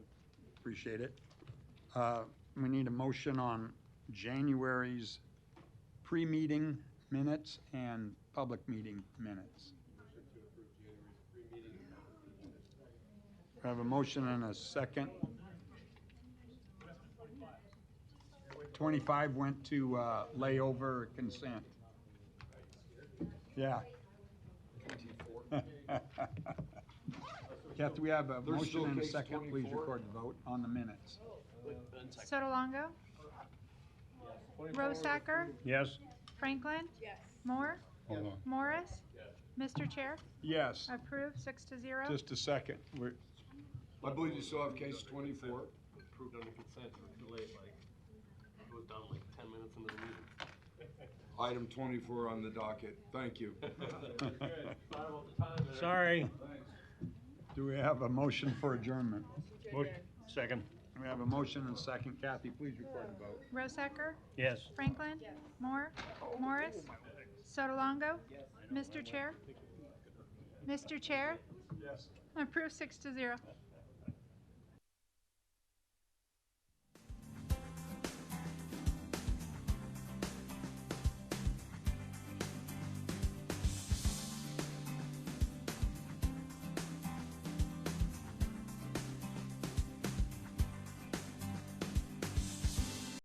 Appreciate it. Uh, We need a motion on January's pre-meeting minutes and public meeting minutes. I have a motion and a second. 25 went to uh, layover consent. Yeah. Kath, do we have a There's motion still and a case second? Please 24. record the vote on the minutes. Sotolongo, Rosacker, Yes? Franklin. Moore, Hold on. Morris. Mr. Chair, Yes, approved, six to zero. just a second. We're- I believe you still have case twenty-four. approved under consent or delayed like, it was down like ten minutes into the meeting. Item twenty-four on the docket. Thank you. Sorry. Do we have a motion for adjournment? Second. We have a motion and second. Kathy, please record the vote. Rosacker, Yes. Franklin. Moore, Morris. Sotolongo, Mr. Chair. Mr. Chair, Yes. approved, six to zero.